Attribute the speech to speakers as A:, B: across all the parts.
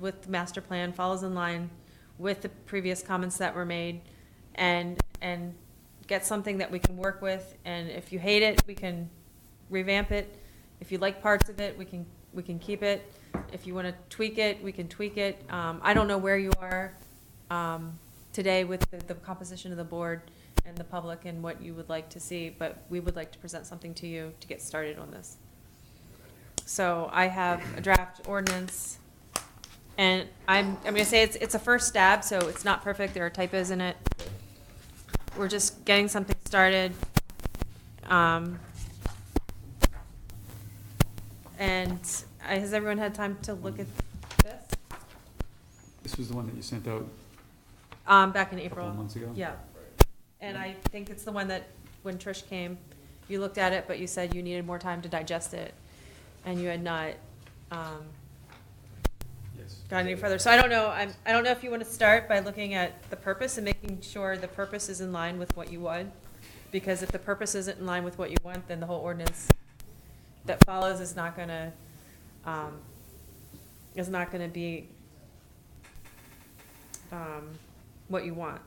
A: with the master plan, follows in line with the previous comments that were made, and, and get something that we can work with, and if you hate it, we can revamp it. If you like parts of it, we can, we can keep it. If you want to tweak it, we can tweak it. Um, I don't know where you are um, today with the- the composition of the board and the public and what you would like to see, but we would like to present something to you to get started on this. So I have a draft ordinance, and I'm, I'm gonna say it's, it's a first stab, so it's not perfect, there are typos in it. We're just getting something started. Um, And uh, has everyone had time to look at this?
B: This was the one that you sent out
A: Um, back in
B: a couple
A: April.
B: of months ago?
A: Yeah. And I think it's the one that, when Trish came, you looked at it, but you said you needed more time to digest it, and you had not, um,
B: Yes.
A: gone any further. So I don't know, I'm, I don't know if you want to start by looking at the purpose and making sure the purpose is in line with what you want. Because if the purpose isn't in line with what you want, then the whole ordinance that follows is not gonna, um, is not gonna be, um, what you want.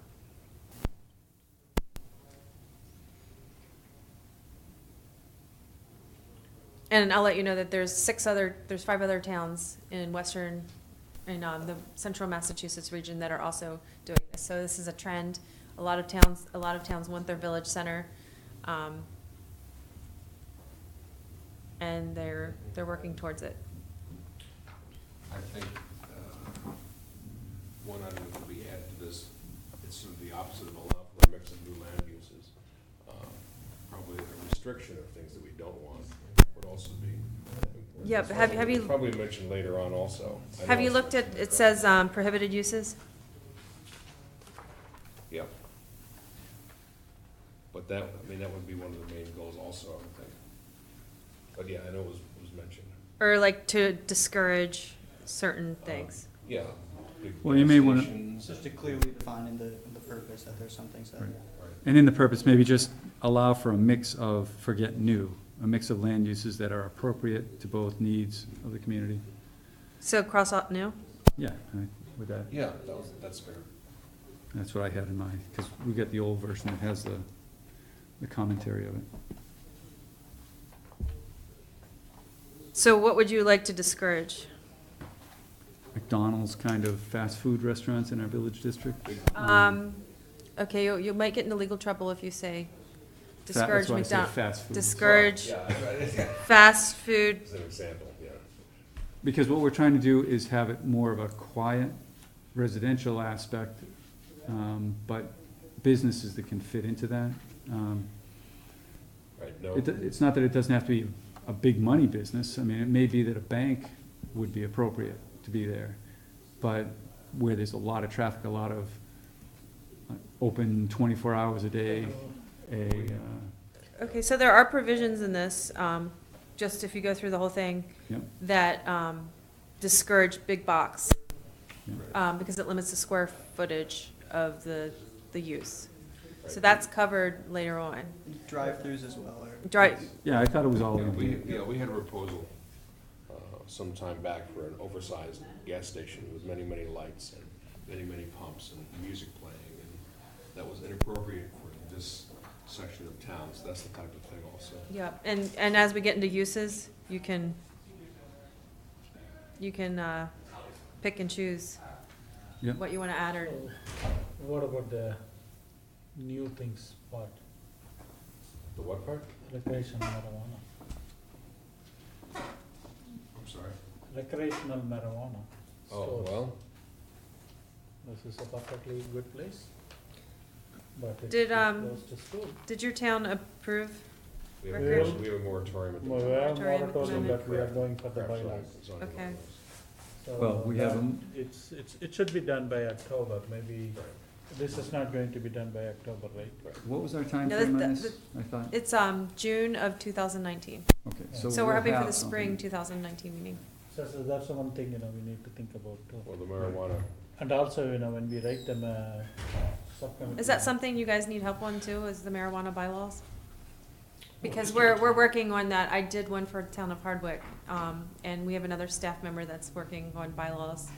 A: And I'll let you know that there's six other, there's five other towns in western, in um, the central Massachusetts region that are also doing this. So this is a trend. A lot of towns, a lot of towns want their village center. um, And they're, they're working towards it.
C: I think uh, one item that we add to this, it's sort of the opposite of allow for a mix of new land uses. Uh, Probably a restriction of things that we don't want would also be. important.
A: Yeah, but have- have you-
C: Probably mentioned later on also. I
A: Have
C: know
A: you
C: it's-
A: looked at, it says um, prohibited uses?
C: Yeah. But that, I mean, that would be one of the main goals also, I would think. But yeah, I know it was, was mentioned.
A: Or like to discourage certain
B: Oh.
A: things?
C: Yeah. big
B: Well, you may
C: gas
B: wanna-
C: stations,
D: Just to clearly define in the, in the purpose that there's some things that,
B: Right.
C: right.
B: And in the purpose, maybe just allow for a mix of, forget new, a mix of land uses that are appropriate to both needs of the community.
A: So cross out new?
B: Yeah, I- with that,
C: Yeah, that was, that's fair.
B: that's what I had in mind, because we got the old version that has the, the commentary of it.
A: So what would you like to discourage?
B: McDonald's kind of fast food restaurants in our village district.
C: Big
A: Um, okay, you, you might get into legal trouble if you say
B: Fa-
A: discourage
B: That's why I said
A: McDonald's.
B: fast food.
A: Discourage
C: Yeah, that's right.
A: fast food.
C: As an example, yeah.
B: Because what we're trying to do is have it more of a quiet residential aspect, um, but businesses that can fit into that. Um,
C: Right, no,
B: It, it's not that it doesn't have to be a big money business, I mean, it may be that a bank would be appropriate to be there, but where there's a lot of traffic, a lot of uh, open twenty-four hours a day, a, uh,
A: Okay, so there are provisions in this, um, just if you go through the whole thing,
B: Yep.
A: that, um, discourage big box,
B: Yep.
A: um, because it limits the square footage of the, the use. So
C: Right.
A: that's covered later on.
D: drive-throughs as well, or
A: Dri-
B: yeah, I thought it was all
C: Yeah,
B: in
C: we,
B: here.
C: yeah, we had a proposal, uh, some time back for an oversized gas station with many, many lights and many, many pumps and music playing, and that was inappropriate for this section of town, so that's the type of thing also.
A: Yeah, and, and as we get into uses, you can, you can, uh, pick and choose
B: Yep.
A: what you wanna add or,
E: What about the new things part,
C: The what part?
E: recreational marijuana?
C: I'm sorry.
E: Recreational marijuana.
C: Oh,
E: stores.
C: well,
E: This is a perfectly good place. But it's
A: Did, um,
E: close to school.
A: did your town approve?
C: we have,
E: Recreation.
C: a- we have a moratorium at the
E: Well,
C: moment.
E: we have
A: Moratorium at the
E: moratorium,
A: moment.
E: but we are going for the
C: Perhaps
E: bylaws.
C: it's on-
A: Okay.
E: So
B: Well, we have
E: that-
B: them.
E: It's, it's, it should be done by October, maybe,
C: Right.
E: this is not going to be done by October, right?
B: What was our
A: No, that-
B: timeframe on
A: that-
B: this? I thought,
A: It's, um, June of two thousand nineteen,
B: okay,
E: Yeah.
B: so
A: so we're
B: we'll
A: hoping for
B: have
A: the spring
B: something.
A: two thousand nineteen meeting.
E: So, so that's the one thing, you know, we need to think about too.
C: Well, the marijuana,
E: And also, you know, when we write them, uh, subcommittee.
A: Is that something you guys need help on too, is the marijuana bylaws? Because we're, we're working on that, I did one for town of Hardwick, um, and we have another staff member that's working on bylaws